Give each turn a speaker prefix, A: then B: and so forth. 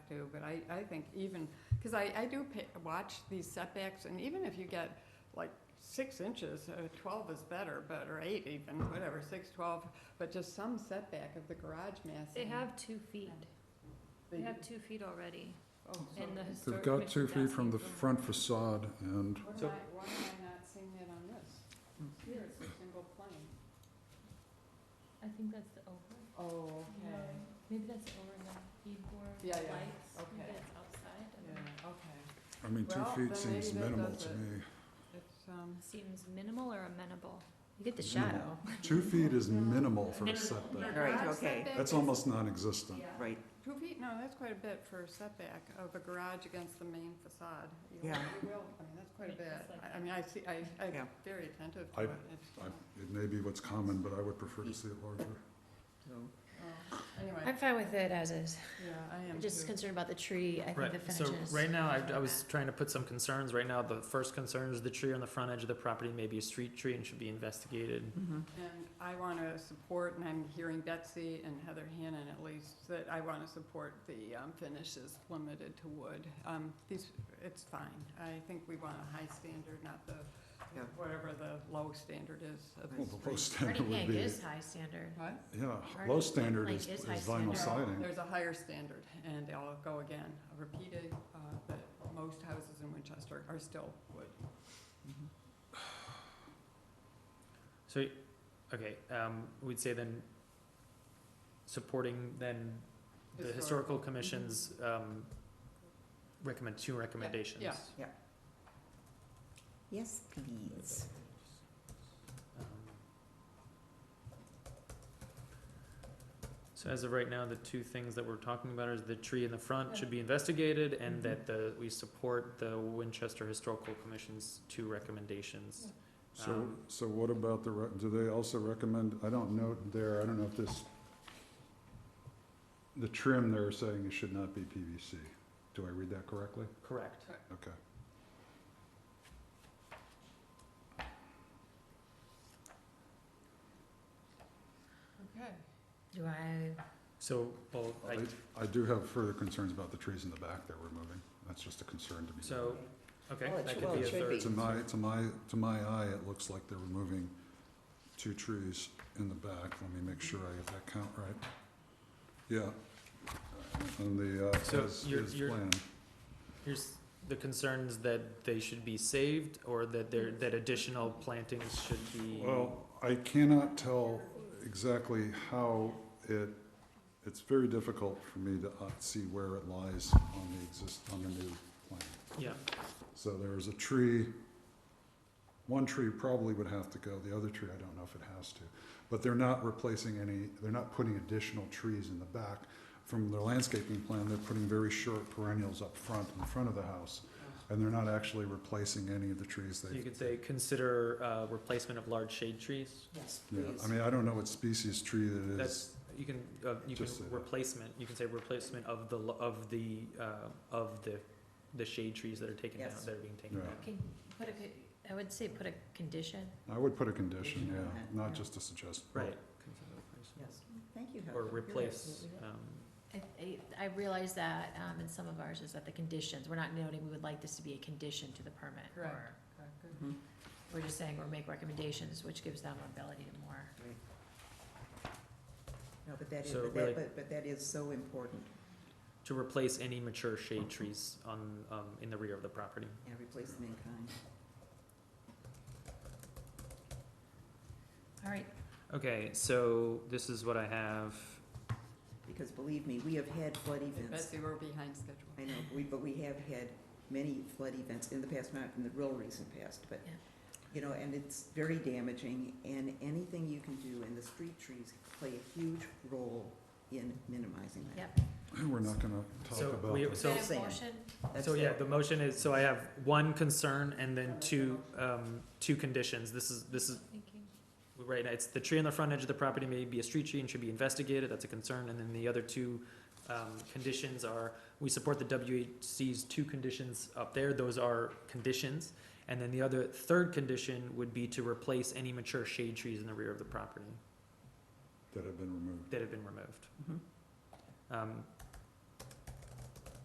A: too, but I, I think even, because I, I do pa- watch these setbacks, and even if you get like six inches, uh, twelve is better, but, or eight even, whatever, six, twelve, but just some setback of the garage mass.
B: They
A: and
B: have two feet,
A: the-
B: they have two feet already,
A: oh, so-
B: and the historic.
C: They've got
B: commission
C: two feet
B: does
C: from
B: need
C: the
B: room.
C: front facade and,
A: What
D: So-
A: am I, why am I not seeing that on this? Here it's a single plane.
B: I think that's the over,
A: Oh,
B: No.
A: okay,
B: maybe that's the over the keyboard
A: Yeah, yeah,
B: lights, maybe
A: okay.
B: it's outside, I don't know.
A: yeah, okay.
C: I mean, two
A: Well,
C: feet
A: then
C: seems
A: maybe that
C: minimal
A: does
C: to
A: it.
C: me.
A: It's, um,
B: Seems minimal or amenable? You get the
C: Minimal.
B: shadow.
C: Two feet is
A: Yeah.
C: minimal for a
B: Minimal.
C: setback.
D: Right,
A: Garage
D: okay.
A: setback
C: That's
A: is-
C: almost non-existent.
D: Right,
A: Two feet, no, that's quite a bit for a setback of a garage against the main facade. You-
D: Yeah.
A: You will, I mean, that's quite a
B: Right,
A: bit.
B: it's like-
A: I- I mean, I see, I,
D: Yeah.
A: I'm very attentive to
C: I-
A: it. It's,
C: I-
A: uh,
C: It may be what's common, but I would prefer to see it larger.
A: oh, Anyway,
B: fine with it as is,
A: yeah, I am too.
B: concerned about the tree, I
E: Right, so right now, I, I was trying to put some concerns, right now, the first concern is the tree on the front edge of the property may be a street tree and should be investigated.
D: Mm-hmm.
A: And I want to support, and I'm hearing Betsy and Heather Hannon at least, that I want to support the um, finishes limited to wood. Um, These, it's fine. I think we want a high standard, not the,
D: Yeah.
A: whatever the low standard is of
C: Well,
A: the
C: the low
A: street.
C: standard would be,
B: high standard.
A: What?
C: yeah,
B: Hardy
C: low standard
B: plank
C: is
B: is
C: is
B: high
C: vinyl
B: standard.
A: No,
C: siding.
A: There's a higher standard, and I'll go again, repeated, uh, that most houses in Winchester are still wood.
E: mm-hmm. So, okay, um, we'd say then, supporting then the historical
A: Mm-hmm.
E: commission's, um, recommend, two recommendations.
A: yeah.
D: yes, please.
E: Um, So as of right now, the two things that we're talking about is the tree in the front should be investigated
D: Mm-hmm.
E: and that the, we support the Winchester Historical Commission's two recommendations.
C: So,
E: Um,
C: so what about the, re- do they also recommend, I don't know there, I don't know if this, the trim they're saying it should not be PVC. Do I read that correctly?
E: Correct.
C: Okay.
A: Okay.
B: Do I?
E: So, well, I,
C: I do have further concerns about the trees in the back that we're moving. That's just a concern to me.
E: so, okay,
D: Well, it
E: that
D: should-
E: could
D: well,
E: be a
D: it should
E: third.
D: be.
C: To my, to my, to my eye, it looks like they're removing two trees in the back. Let me make sure I get that count right. Yeah, on the, uh,
E: So
C: as,
E: you're-
C: as
E: you're-
C: planned.
E: Here's the concerns that they should be saved or
D: Mm-hmm.
E: that there, that additional plantings should be.
C: Well, I cannot tell exactly how it, it's very difficult for me to uh, see where it lies on the exist, on the new plan.
E: Yeah,
C: So there's a tree, one tree probably would have to go, the other tree, I don't know if it has to. But they're not replacing any, they're not putting additional trees in the back. From their landscaping plan, they're putting very short perennials up front, in front of the house. And they're not actually replacing any of the trees
E: so
C: they.
E: you could say, consider, uh, replacement of large shade trees.
D: Yes,
C: Yeah,
D: please.
C: I mean, I don't know what species tree that is.
E: That's, you can, uh, you can
C: Just say that.
E: replacement, you can say replacement of the, lo- of the, uh, of the, the shade trees that are taken down,
D: Yes.
E: that are being taken
C: Yeah.
E: down.
B: Can, put a, co- I would say put a condition.
C: I would put a condition,
D: Condition on
C: yeah,
D: that,
C: not
D: yeah.
C: just a suggestion.
E: Right. Consider replacement.
D: Yes, thank you, Heather.
E: Or
D: You're
E: replace,
D: absolutely right.
E: um,
B: I, I I realize that, um, in some of ours is that the conditions, we're not noting, we would like this to be a condition to the permit.
A: Correct.
B: or
E: uh,
A: Mm-hmm.
D: Mm-hmm.
B: We're just saying, or make recommendations, which gives them ability to more.
D: No, but that is,
E: So
D: but
E: really-
D: that, but, but that is so important,
E: to replace any mature shade trees on, um, in the rear of the property.
D: yeah, replace them in kind.
B: All right,
E: Okay, so this is what I have.
D: Because believe me, we have had flood events.
A: Betsy, we're behind schedule.
D: I know, we, but we have had many flood events in the past, not in the real recent past, but,
B: Yeah.
D: you know, and it's very damaging, and anything you can do, and the street trees play a huge role in minimizing that.
B: Yep.
C: We're not gonna talk
E: So
C: about
E: we-
C: that.
E: so-
B: Is that a
D: Same.
B: motion?
D: That's
E: So yeah,
D: it.
E: the motion is, so I have one concern and then two, um, two conditions. This is, this is,
B: Thinking.
E: Right, it's the tree on the front edge of the property may be a street tree and should be investigated, that's a concern, and then the other two um, conditions are, we support the WHC's two conditions up there, those are conditions. And then the other, third condition would be to replace any mature shade trees in the rear of the property
C: That have been removed.
D: Mm-hmm.
E: that have been removed.
D: Mhm.
E: Um,